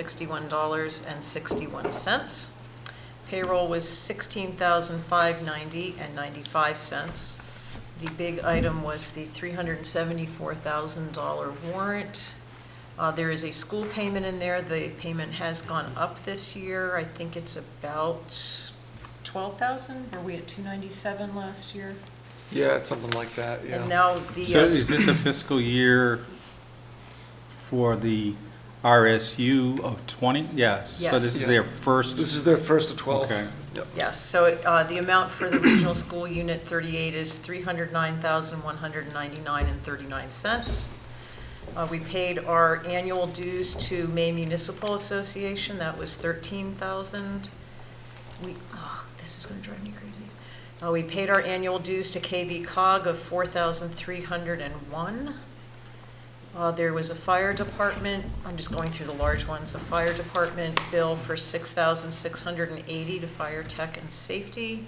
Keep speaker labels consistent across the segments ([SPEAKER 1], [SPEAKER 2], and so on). [SPEAKER 1] sixty-one dollars and sixty-one cents. Payroll was sixteen thousand five ninety and ninety-five cents. The big item was the three hundred and seventy-four thousand dollar warrant. Uh, there is a school payment in there. The payment has gone up this year. I think it's about twelve thousand. Were we at two ninety-seven last year?
[SPEAKER 2] Yeah, it's something like that,
[SPEAKER 1] And
[SPEAKER 2] yeah.
[SPEAKER 1] now the.
[SPEAKER 3] So
[SPEAKER 1] uh,
[SPEAKER 3] is this a fiscal year for the RSU of 20? Yes. So this
[SPEAKER 2] Yes.
[SPEAKER 3] is their
[SPEAKER 2] This
[SPEAKER 3] first,
[SPEAKER 2] is their first of 12.
[SPEAKER 3] Okay.
[SPEAKER 2] Yep.
[SPEAKER 1] Yes, so uh, the amount for the Regional School Unit 38 is $309,199.39. Uh, We paid our annual dues to May Municipal Association, that was $13,000. We, oh, this is going to drive me crazy. Uh, We paid our annual dues to KV cog of $4,301. Uh, There was a fire department, I'm just going through the large ones, a fire department bill for six thousand six hundred and eighty to fire tech and safety.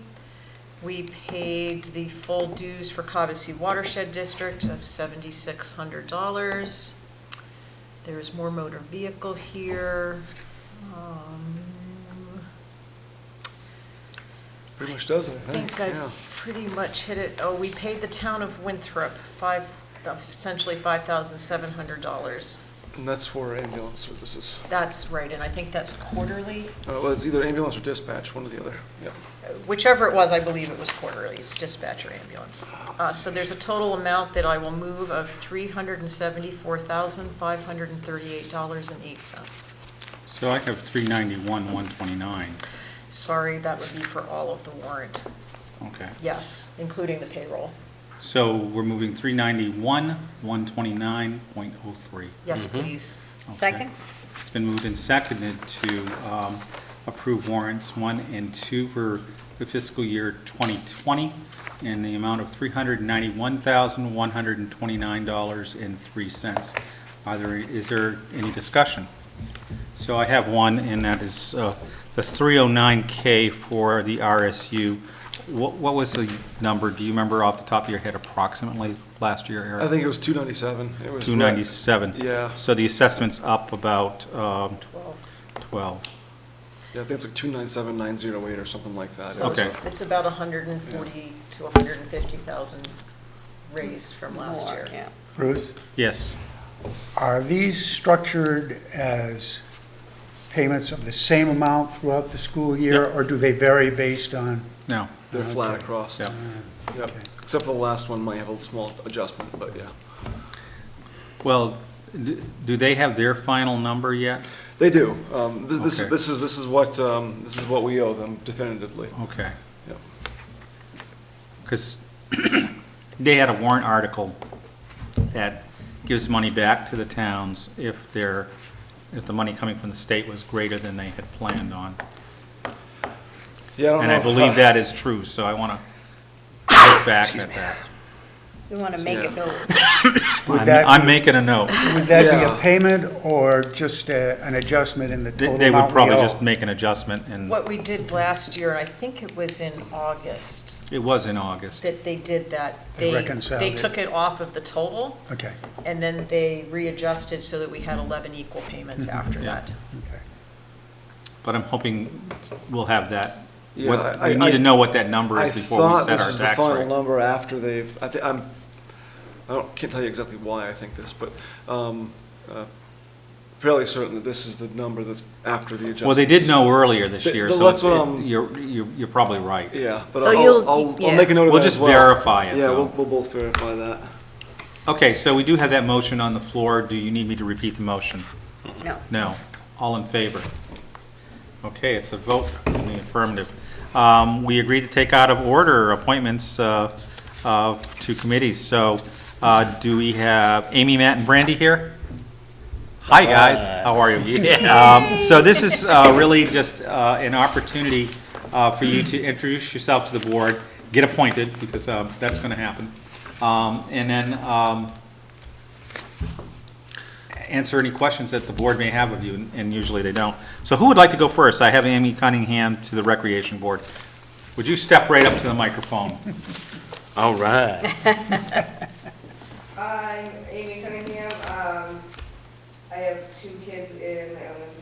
[SPEAKER 1] We paid the full dues for Cobussy Watershed District of seventy-six hundred dollars. There's more motor vehicle here. Um,
[SPEAKER 2] Pretty much does it, I
[SPEAKER 1] I think
[SPEAKER 2] think, yeah.
[SPEAKER 1] I've pretty much hit it. Oh, we paid the town of Winthrop five, essentially five thousand seven hundred dollars.
[SPEAKER 2] And that's for ambulance services.
[SPEAKER 1] That's right, and I think that's quarterly.
[SPEAKER 2] Uh, Well, it's either ambulance or dispatch, one or the other, yeah.
[SPEAKER 1] Whichever it was, I believe it was quarterly, it's dispatch or ambulance. Uh, So there's a total amount that I will move of $374,538.08.
[SPEAKER 3] so I have 391, 129.
[SPEAKER 1] Sorry, that would be for all of the warrant.
[SPEAKER 3] Okay.
[SPEAKER 1] Yes, including the payroll.
[SPEAKER 3] So we're moving 391, 129.03.
[SPEAKER 1] Yes, please.
[SPEAKER 3] Okay.
[SPEAKER 4] Second?
[SPEAKER 3] It's been moved and seconded to um, approve warrants one and two for the fiscal year 2020 in the amount of $391,129.03. Are there, is there any discussion? So I have one, and that is uh, the 309K for the RSU. What what was the number, do you remember off the top of your head approximately last year, Eric?
[SPEAKER 2] I think it was 297. It was right-
[SPEAKER 3] 297.
[SPEAKER 2] Yeah.
[SPEAKER 3] So the assessment's up about um,
[SPEAKER 1] 12.
[SPEAKER 3] 12.
[SPEAKER 2] Yeah, I think it's like 297,908 or something like that. It was
[SPEAKER 1] So
[SPEAKER 3] Okay.
[SPEAKER 1] It's about 140 to 150,000 raised from last
[SPEAKER 4] More,
[SPEAKER 1] year.
[SPEAKER 4] yeah.
[SPEAKER 5] Bruce,
[SPEAKER 3] Yes.
[SPEAKER 5] are these structured as payments of the same amount throughout the school year?
[SPEAKER 3] Yep.
[SPEAKER 5] Or do they vary based on,
[SPEAKER 3] No.
[SPEAKER 2] They're flat
[SPEAKER 5] Okay.
[SPEAKER 2] across.
[SPEAKER 3] Yeah.
[SPEAKER 2] Yep, except for the last one might have a small adjustment, but yeah.
[SPEAKER 3] Well, d- do they have their final number yet?
[SPEAKER 2] They do. Um, th- This,
[SPEAKER 3] Okay.
[SPEAKER 2] this is, this is what, um, this is what we owe them definitively.
[SPEAKER 3] Okay.
[SPEAKER 2] Yep.
[SPEAKER 3] Because they had a warrant article that gives money back to the towns if their, if the money coming from the state was greater than they had planned on.
[SPEAKER 2] Yeah, don't
[SPEAKER 3] And I
[SPEAKER 5] Oh.
[SPEAKER 2] know.
[SPEAKER 3] believe that is true, so I want to look back at that.
[SPEAKER 4] We want to make
[SPEAKER 2] Yeah.
[SPEAKER 4] it go,
[SPEAKER 5] would
[SPEAKER 3] I'm-
[SPEAKER 5] that,
[SPEAKER 3] I'm making a note.
[SPEAKER 5] be- would that be
[SPEAKER 2] Yeah.
[SPEAKER 5] a payment or just a- an adjustment in the
[SPEAKER 3] They-
[SPEAKER 5] total
[SPEAKER 3] They would
[SPEAKER 5] amount we
[SPEAKER 3] probably
[SPEAKER 5] owe?
[SPEAKER 3] just make an adjustment, and
[SPEAKER 1] What we did last year, and I think it was in August,
[SPEAKER 3] it was in August.
[SPEAKER 1] that they did that.
[SPEAKER 5] They reconciled
[SPEAKER 1] They
[SPEAKER 5] it.
[SPEAKER 1] took it off of the total,
[SPEAKER 5] Okay,
[SPEAKER 1] and then they readjusted so that we had 11 equal payments
[SPEAKER 5] Mm-hmm.
[SPEAKER 1] after
[SPEAKER 3] Yeah.
[SPEAKER 1] that.
[SPEAKER 5] okay.
[SPEAKER 3] But I'm hoping we'll have that.
[SPEAKER 2] Yeah,
[SPEAKER 3] what-
[SPEAKER 2] I-
[SPEAKER 3] We need
[SPEAKER 2] I-
[SPEAKER 3] to know what that number is before we set
[SPEAKER 2] I thought
[SPEAKER 3] our
[SPEAKER 2] this was the
[SPEAKER 3] tax
[SPEAKER 2] final
[SPEAKER 3] rate.
[SPEAKER 2] number after they've, I think, I'm, I don't, can't tell you exactly why I think this, but, um, uh, fairly certain that this is the number that's after the adjustment.
[SPEAKER 3] Well, they did know earlier this
[SPEAKER 2] Th-
[SPEAKER 3] year,
[SPEAKER 2] th-
[SPEAKER 3] so
[SPEAKER 2] that's what
[SPEAKER 3] it's-
[SPEAKER 2] I'm-
[SPEAKER 3] it- you're, you're you're probably right.
[SPEAKER 2] Yeah, but
[SPEAKER 1] So
[SPEAKER 2] I'll,
[SPEAKER 1] you'll-
[SPEAKER 2] I'll, I'll
[SPEAKER 1] yeah.
[SPEAKER 2] make a note of
[SPEAKER 3] We'll
[SPEAKER 2] that
[SPEAKER 3] just
[SPEAKER 2] as well.
[SPEAKER 3] verify it,
[SPEAKER 2] Yeah, we'll,
[SPEAKER 3] though.
[SPEAKER 2] we'll both verify that.
[SPEAKER 3] Okay, so we do have that motion on the floor. Do you need me to repeat the motion?
[SPEAKER 4] no.
[SPEAKER 3] No. All in favor? Okay, it's a vote in the affirmative. Um, We agreed to take out of order appointments uh, of, to committees, so uh, do we have Amy, Matt, and Brandy here? Hi, guys, how are you? Yeah, um, So this is uh, really just uh, an opportunity uh, for you to introduce yourself to the board, get appointed, because uh, that's going to happen, Um, and then um, answer any questions that the board may have of you, and usually they don't. So who would like to go first? I have Amy Cunningham to the Recreation Board. Would you step right up to the microphone?
[SPEAKER 6] All right.
[SPEAKER 7] I'm Amy Cunningham. Um, I have two kids in the elementary